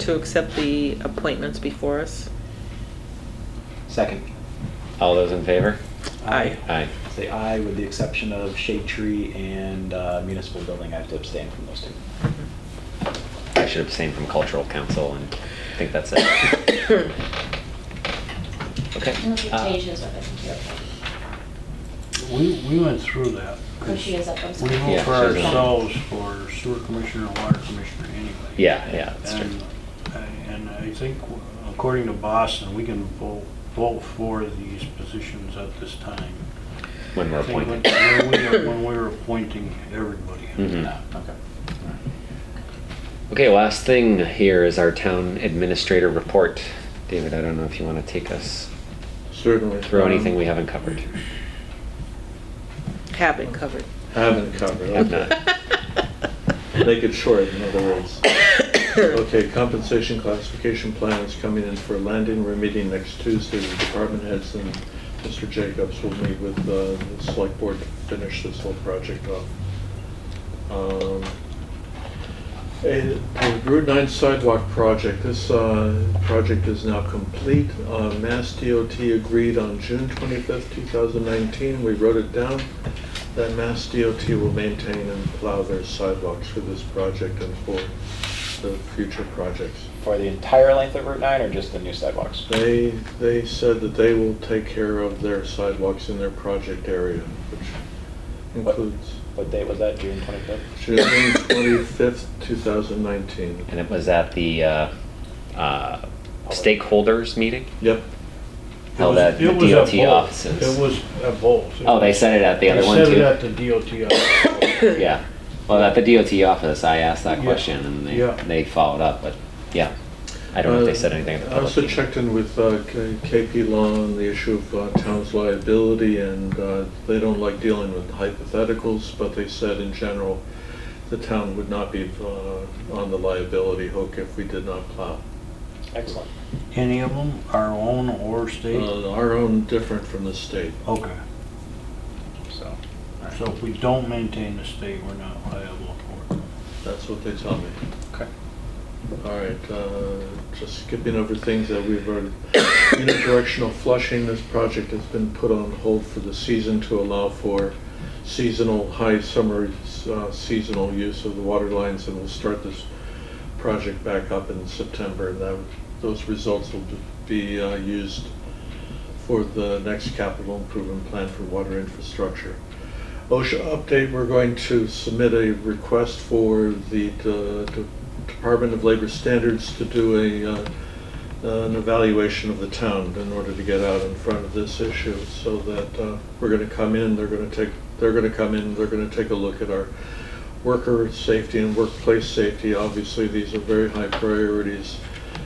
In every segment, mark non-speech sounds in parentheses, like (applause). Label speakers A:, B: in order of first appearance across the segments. A: to accept the appointments before us?
B: Second,
C: All those in favor?
A: Aye.
C: Aye.
B: say aye with the exception of shade tree and uh, municipal building. I have to abstain from those two.
C: I should abstain from cultural council and I think that's it. Okay.
D: Unless you
C: uh,
D: change his, I think you're okay.
E: We, we went through that.
D: Oh, she is up, I'm
E: We
D: sorry.
C: Yeah,
E: vote for
C: she's up.
E: ourselves for sewer commissioner, water commissioner anyway.
C: Yeah, yeah, that's true.
E: And, and I think according to Boston, we can vote, vote for these positions at this time.
C: When we're
E: I think
C: appointed.
E: When when we were- when we were appointing everybody.
C: Mhm.
B: No, okay.
C: Okay, last thing here is our town administrator report. David, I don't know if you want to take us
F: Certainly.
C: through anything we haven't covered.
A: Have it covered.
F: Haven't covered.
A: (laughs)
C: Have
F: okay.
C: not.
F: Make it short, in other words. Okay, compensation classification plan is coming in for Landon. We're meeting next Tuesday with department heads and Mr. Jacobs will meet with uh, the select board to finish this whole project off. Um, And the Route 9 sidewalk project, this uh, project is now complete. Uh, Mass DOT agreed on June 25th, 2019. We wrote it down. That Mass DOT will maintain and plow their sidewalks for this project and for the future projects.
B: For the entire length of Route 9 or just the new sidewalks?
F: They, they said that they will take care of their sidewalks in their project area, which includes
B: What date was that, June 25th?
F: June 25th, 2019.
C: And it was at the uh, uh, stakeholders meeting
F: Yep.
C: held
E: It
C: at
E: was-
C: the
E: it was at
C: DOT
E: both.
C: offices.
E: It was at both.
C: Oh, they said it at the other one
E: They said
C: too?
E: it at the DOT
C: (coughs)
E: office.
C: Yeah. Well, at the DOT office, I asked that
E: Yeah.
C: question and
E: Yeah.
C: they, they followed up, but yeah. I don't know if they said anything at the
F: Uh, I
C: public
F: also
C: meeting.
F: checked in with uh, K- KP Law on the issue of uh, town's liability, and uh, they don't like dealing with hypotheticals, but they said in general, the town would not be uh, on the liability hook if we did not plow.
B: Excellent.
E: Any of them, our own or state?
F: Uh, Our own different from the state.
E: Okay.
B: So,
E: So if we don't maintain the state, we're not liable for it.
F: That's what they tell me.
B: okay.
F: All right, uh, just skipping over things that we've (coughs) already, unidirectional flushing, this project has been put on hold for the season to allow for seasonal, high summer uh, seasonal use of the water lines, and we'll start this project back up in September, and that, those results will be uh, used for the next capital improvement plan for water infrastructure. OSHA update, we're going to submit a request for the uh, De- Department of Labor Standards to do a, uh, an evaluation of the town in order to get out in front of this issue, so that uh, we're gonna come in, they're gonna take, they're gonna come in, they're gonna take a look at our worker safety and workplace safety. Obviously, these are very high priorities,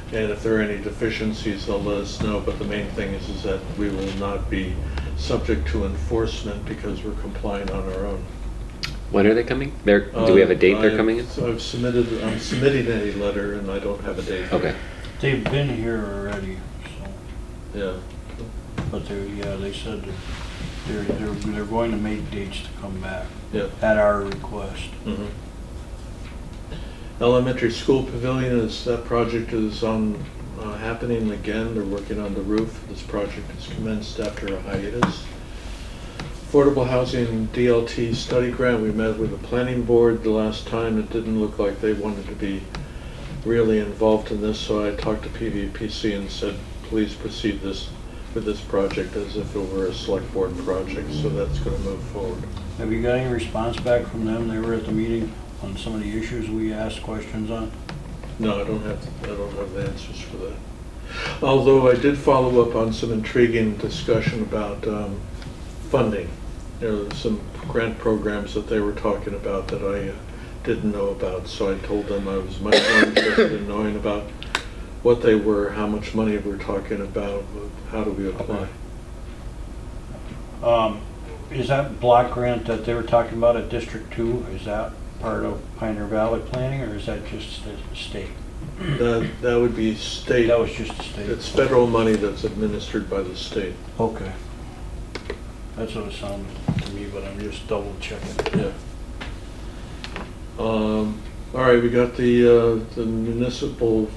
F: and if there are any deficiencies, they'll let us know. But the main thing is, is that we will not be subject to enforcement because we're compliant on our own.
C: When are they coming? They're, do we have a date
F: Uh,
C: they're
F: I-
C: coming in?
F: So I've submitted, I'm submitting a letter, and I don't have a date.
C: Okay.
E: They've been here already, so,
F: Yeah.
E: but they're, yeah, they said that they're, they're, they're going to make dates to come back
F: Yeah.
E: at our request.
F: Mhm. Mm-hmm. Elementary school pavilion is, that project is on, uh, happening again, they're working on the roof. This project has commenced after a hiatus. Affordable housing DLT study grant, we met with the planning board the last time, it didn't look like they wanted to be really involved in this, so I talked to PVPC and said, please proceed this, with this project as if it were a select board project, so that's gonna move forward.
E: Have you got any response back from them? They were at the meeting on some of the issues we asked questions on.
F: No, I don't have, I don't have the answers for that. Although I did follow up on some intriguing discussion about um, funding. There were some grant programs that they were talking about that I uh, didn't know about, so I told them I was much more interested in knowing about what they were, how much money we're talking about, how do we apply.
E: Um, is that block grant that they were talking about at District Two, is that part of Pioneer Valley planning, or is that just the state?
F: That, that would be state,
E: That was just the state?
F: it's federal money that's administered by the state.
E: Okay. That's what it sounded to me, but I'm just double checking.
F: Yeah. Um, All right, we got the uh, the municipal